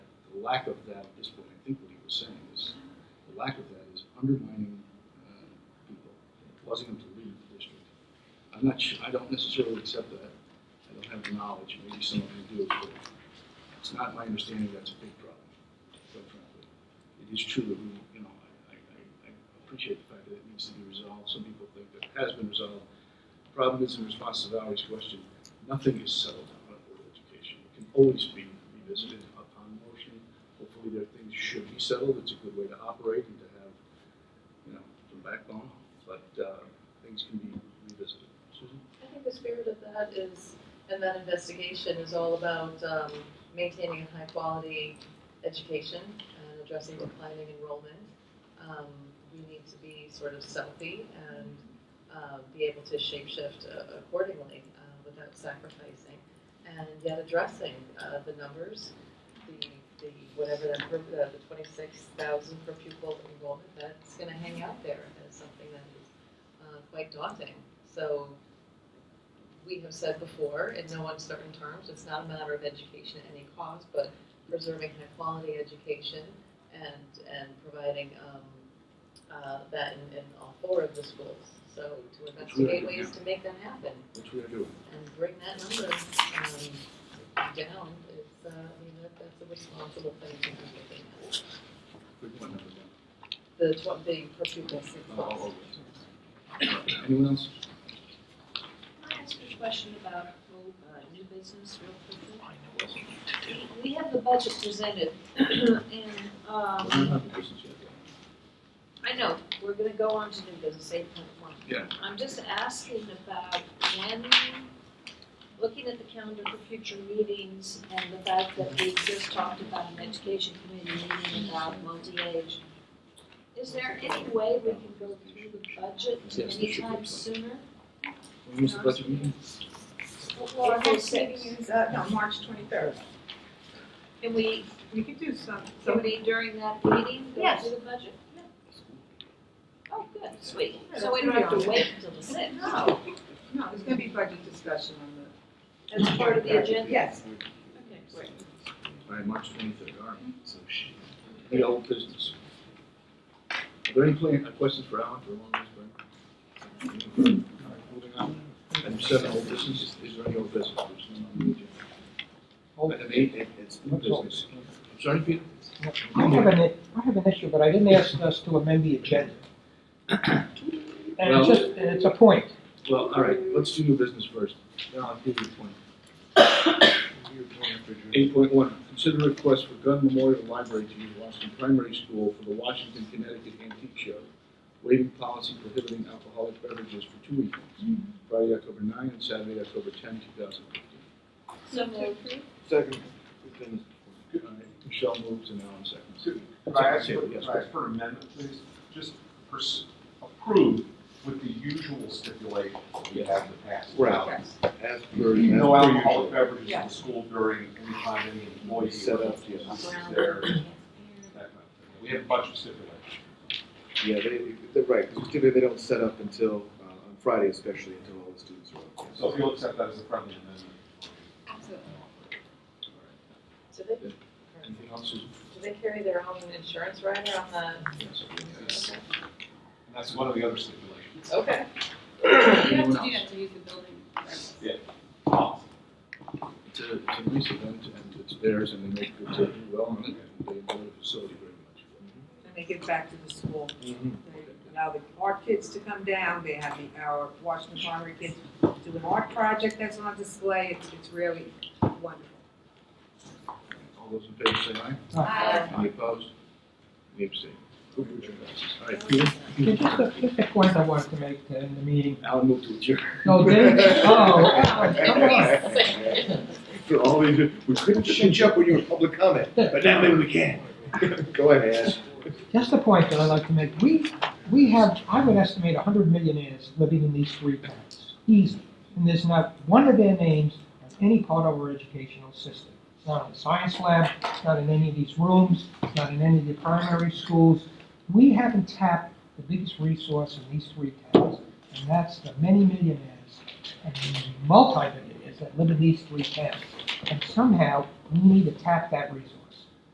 the lack of that is what I think what he was saying is the lack of that is undermining uh, people, causing them to leave the district. I'm not sure, I don't necessarily accept that. I don't have the knowledge, maybe some of you do, but it's not my understanding that's a big problem, quite frankly. It is true that we, you know, I, I, I- I appreciate the fact that it needs to be resolved. Some people think that it has been resolved. The Problem is, in response to Valerie's question, nothing is settled on Board of Education. It can always be revisited upon motion. Hopefully, there are things should be settled. It's a good way to operate and to have, you know, some backbone, but, uh, things can be revisited. Susan? I think the spirit of that is, and that investigation is all about um, maintaining a high-quality education and addressing declining enrollment. Um, We need to be sort of stealthy and uh, be able to shapeshift uh, accordingly uh, without sacrificing, and yet addressing uh, the numbers, the, the, whatever that, per- uh, the twenty-six thousand per pupil enrollment, that's gonna hang out there as something that is uh, quite daunting. So we have said before, in no uncertain terms, it's not a matter of education at any cost, but preserving high quality education and, and providing, um, uh, that in, in all four of the schools. So to investigate ways to make that happen Which we are doing. and bring that number, um, down is, uh, I mean, that, that's a responsible thing to be looking at. Good point, number one. The tw- the per pupil six Oh, months. oh, oh. Anyone else? Can I ask you a question about uh, new business real quickly? I know what we need to do. We have the budget presented, and, Well, we're um, not in business yet. I know, we're gonna go on to new business, eight point one. Yeah. I'm just asking about when, looking at the calendar for future meetings, and the fact that we just talked about an education committee meeting about multi-age. Is there any way we can go through the budget Yes, there should be anytime plenty. sooner? When was the budget meeting? Well, Our April next sixth. meeting is, uh, no, March twenty-third. Can we We could do some, So we, during that meeting, go Yes. through the budget? Oh, good, sweet. Yeah, So we that's don't have pretty to wait until the sixth? No, no, there's gonna be budget discussion on the. That's part of the agenda? Yes. Okay. All right, March twenty-third, all right. So she, the old business. Are there any plan, uh, questions for Alan for long this, Brian? All right, moving on. Item seven, old business, is there any old business? There's none on the agenda. Item eight, it- it's new business. I'm sorry, Peter? I have an, I have an issue, but I didn't ask us to amend the agenda. And Well- it's just, and it's a point. Well, all right, let's do new business first. Now, I'll give you a point. Eight point one, consider request for Gunn Memorial Library to use Washington Primary School for the Washington, Connecticut Antique Show, waiving policy prohibiting alcoholic beverages for two weekends, Friday, October nine, and Saturday, October ten, two thousand fifteen. So moved. Second. We've done All right, Michelle moves and Alan seconds. Could I ask, Secretary, could yes, I ask for an amendment, please? Just pers- approve with the usual stipulation that we have in the past. Right. Yes. this. As per, No as per alcoholic usual. beverages in the Yes. school during any time any employee. Set up, is yes. there, that kind of thing. We have a bunch of stipulations. Yeah, they, they're right, because typically they don't set up until, uh, on Friday especially, until all the students are up. So if you'll accept that as a friendly amendment. Absolutely. All right. Do they, Anything else, Susan? do they carry their own insurance rider on the, Yes. okay, And that's one of the other stipulations. okay. Anyone else? to use the building. Policy. Mm-hmm. It's a, it's a nice event, and it's theirs, and they make good, they do well on it, and they enjoy the facility very much. And they give back to the school. Mhm. They Allow the art kids to come down, they have the, our Washington Primary kids do an art project that's on display, it's, it's really wonderful. All those in favor say aye. Uh, Any opposed? Any abstained? Who would you ask? All right, Peter? Okay, Just a, just a point I wanted to make in the meeting. Alan moved to adjourn. No, Dave, oh, For all we, do- we couldn't change up when you were public comment, but now maybe we can. Go ahead, Ash. just a point that I'd like to make. We, we have, I would estimate hundred millionaires living in these three towns, easy. And there's not one of their names on any part of our educational system. It's not in the science lab, it's not in any of these rooms, it's not in any of the primary schools. We haven't tapped the biggest resource in these three towns, and that's the many millionaires and multi-millionaires that live in these three towns. And somehow, we need to tap that resource.